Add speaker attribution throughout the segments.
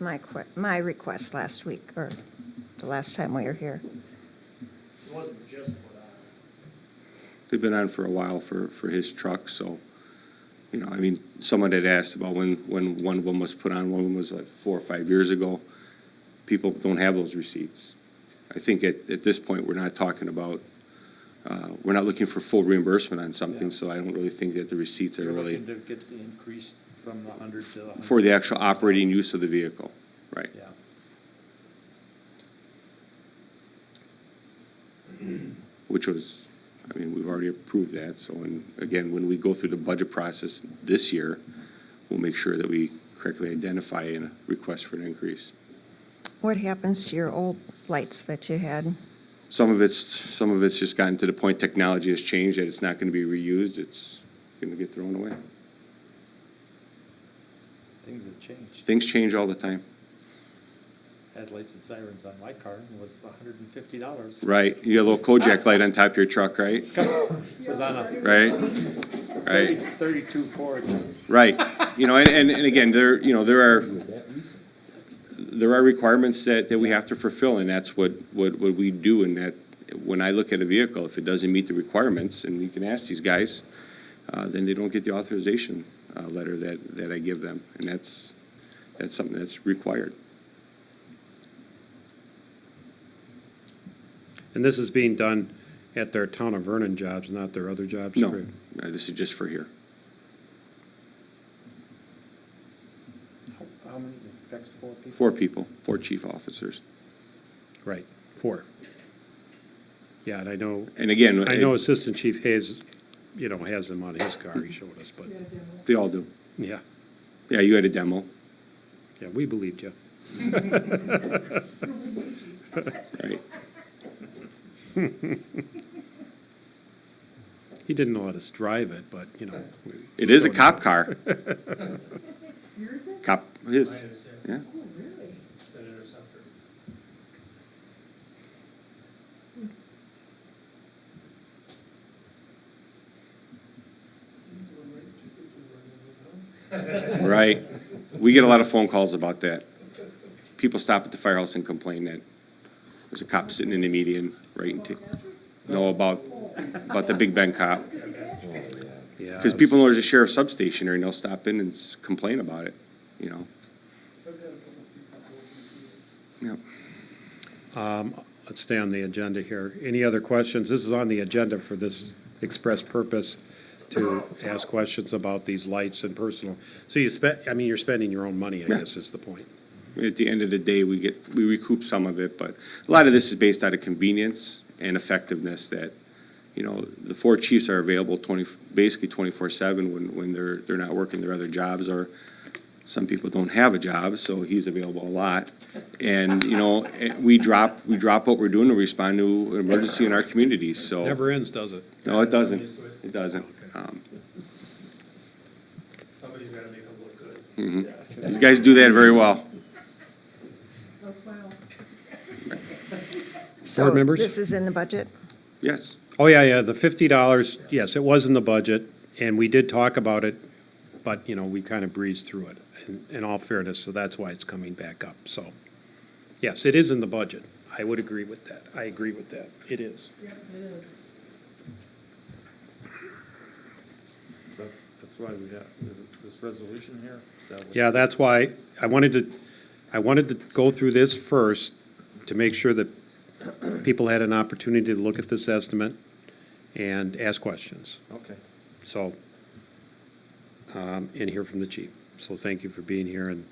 Speaker 1: my, que- my request last week, or the last time we were here.
Speaker 2: It wasn't just what I,
Speaker 3: They've been on for a while for, for his truck, so, you know, I mean, someone had asked about when, when one of them was put on, one of them was like four or five years ago. People don't have those receipts. I think at, at this point, we're not talking about, uh, we're not looking for full reimbursement on something,
Speaker 4: Yeah.
Speaker 3: so I don't really think that the receipts are
Speaker 4: You're
Speaker 3: really
Speaker 4: looking to get the increase from the hundred to the hundred.
Speaker 3: for the actual operating use of the vehicle, right?
Speaker 4: Yeah.
Speaker 3: which was, I mean, we've already approved that, so, and again, when we go through the budget process this year, we'll make sure that we correctly identify and request for an increase.
Speaker 1: What happens to your old lights that you had?
Speaker 3: Some of it's, some of it's just gotten to the point technology has changed, that it's not gonna be reused, it's gonna get thrown away.
Speaker 4: Things have changed.
Speaker 3: Things change all the time,
Speaker 4: Had lights and sirens on my car and was hundred and fifty dollars.
Speaker 3: right? You got a little Kojak light on top of your truck, right?
Speaker 4: Was on a
Speaker 3: Right?
Speaker 4: thirty,
Speaker 3: Right,
Speaker 4: thirty-two Ford.
Speaker 3: right. You know, and, and, and again, there, you know, there are, there are requirements that, that we have to fulfill, and that's what, what, what we do, and that, when I look at a vehicle, if it doesn't meet the requirements, and you can ask these guys, uh, then they don't get the authorization, uh, letter that, that I give them, and that's, that's something that's required.
Speaker 5: And this is being done at their town of Vernon jobs, not their other jobs?
Speaker 3: No,
Speaker 5: correct?
Speaker 3: uh, this is just for here.
Speaker 4: How- How many, it affects four people?
Speaker 3: Four people, four chief officers.
Speaker 5: Right, four. Yeah, and I know,
Speaker 3: And again,
Speaker 5: I know Assistant Chief Hayes, you know, has them on his car, he showed us, but,
Speaker 3: They all do.
Speaker 5: yeah,
Speaker 3: Yeah, you had a demo,
Speaker 5: yeah, we believed you.
Speaker 3: right?
Speaker 5: He didn't let us drive it, but, you know. we-
Speaker 3: It is a cop car.
Speaker 6: Yours is?
Speaker 3: Cop, his,
Speaker 2: Mine is,
Speaker 3: yeah.
Speaker 6: Oh, really?
Speaker 2: it's an interceptor.
Speaker 3: Right. We get a lot of phone calls about that. People stop at the firehouse and complain that there's a cop sitting in the median right in, t- know about, about the Big Ben cop.
Speaker 5: Yeah,
Speaker 3: Because people know there's a sheriff substation there and they'll stop in and s- complain about it, you know? Yep.
Speaker 5: Let's stay on the agenda here. Any other questions? This is on the agenda for this express purpose to ask questions about these lights and personal. So you spent, I mean, you're spending your own money, I
Speaker 3: Yeah.
Speaker 5: guess is the point.
Speaker 3: At the end of the day, we get, we recoup some of it, but a lot of this is based out of convenience and effectiveness that, you know, the four chiefs are available twenty, basically twenty-four seven when, when they're, they're not working their other jobs or some people don't have a job, so he's available a lot. And, you know, eh, we drop, we drop what we're doing to respond to an emergency in our communities, so.
Speaker 5: Never ends, does it?
Speaker 3: No, it doesn't. It doesn't. Um,
Speaker 2: Somebody's gotta make them look good.
Speaker 3: Mm-hmm. These guys do that very well.
Speaker 6: Oh, wow.
Speaker 1: So
Speaker 5: members?
Speaker 1: This is in the budget?
Speaker 3: Yes.
Speaker 5: Oh, yeah, yeah, the fifty dollars, yes, it was in the budget, and we did talk about it, but, you know, we kind of breezed through it, in, in all fairness, so that's why it's coming back up, so. Yes, it is in the budget. I would agree with that. I agree with that. It is.
Speaker 6: Yep, it is.
Speaker 4: That- That's why we got this resolution here. Is that what-
Speaker 5: Yeah, that's why I wanted to, I wanted to go through this first to make sure that people had an opportunity to look at this estimate and ask questions.
Speaker 4: Okay.
Speaker 5: So, um, and hear from the chief. So thank you for being here, and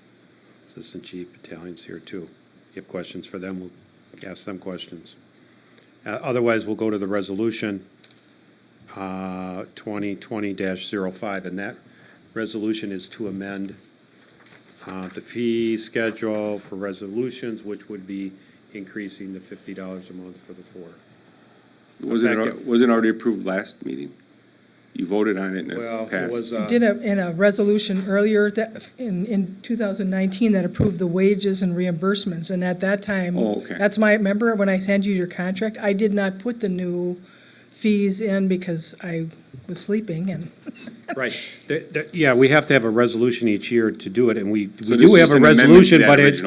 Speaker 5: Assistant Chief Battalion's here too. If you have questions for them, we'll ask them questions. Uh, Otherwise, we'll go to the resolution uh, 2020-05, and that resolution is to amend uh, the fee schedule for resolutions, which would be increasing to $50 a month for the four.
Speaker 3: Was it, was it already approved last meeting? You voted on it and
Speaker 5: Well,
Speaker 3: it
Speaker 5: it was.
Speaker 3: passed.
Speaker 5: uh,
Speaker 7: Did a, in a resolution earlier that, in, in 2019, that approved the wages and reimbursements, and at that time.
Speaker 3: Oh, okay.
Speaker 7: That's my, remember when I sent you your contract, I did not put the new fees in because I was sleeping and
Speaker 5: Right. Th- th- Yeah, we have to have a resolution each year to do it, and we we
Speaker 3: So this
Speaker 5: do
Speaker 3: is
Speaker 5: have a
Speaker 3: an amendment to
Speaker 5: resolution,
Speaker 3: that
Speaker 5: but it,
Speaker 3: original